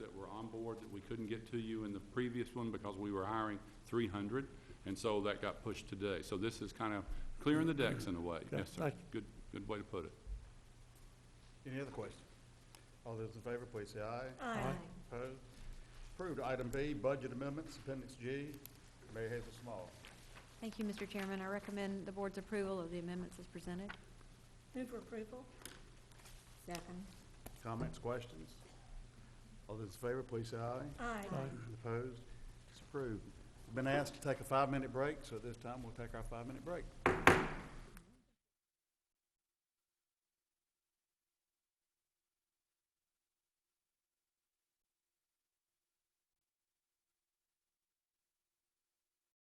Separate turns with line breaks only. award that we couldn't get to you in the previous one because we were hiring three hundred, and so that got pushed today. So this is kind of clearing the decks in a way.
Yeah,
Yes, sir.
thank you.
Good, good way to put it.
Any other questions? All those in favor, please say aye.
Aye.
Opposed? Approved. Item B, budget amendments, appendix G. Mayor Hazel Small.
Thank you, Mr. Chairman. I recommend the board's approval of the amendments as presented.
Move for approval?
Second.
Comments, questions? All those in favor, please say aye.
Aye.
Opposed? It's approved. Been asked to take a five-minute break, so at this time, we'll take our five-minute break.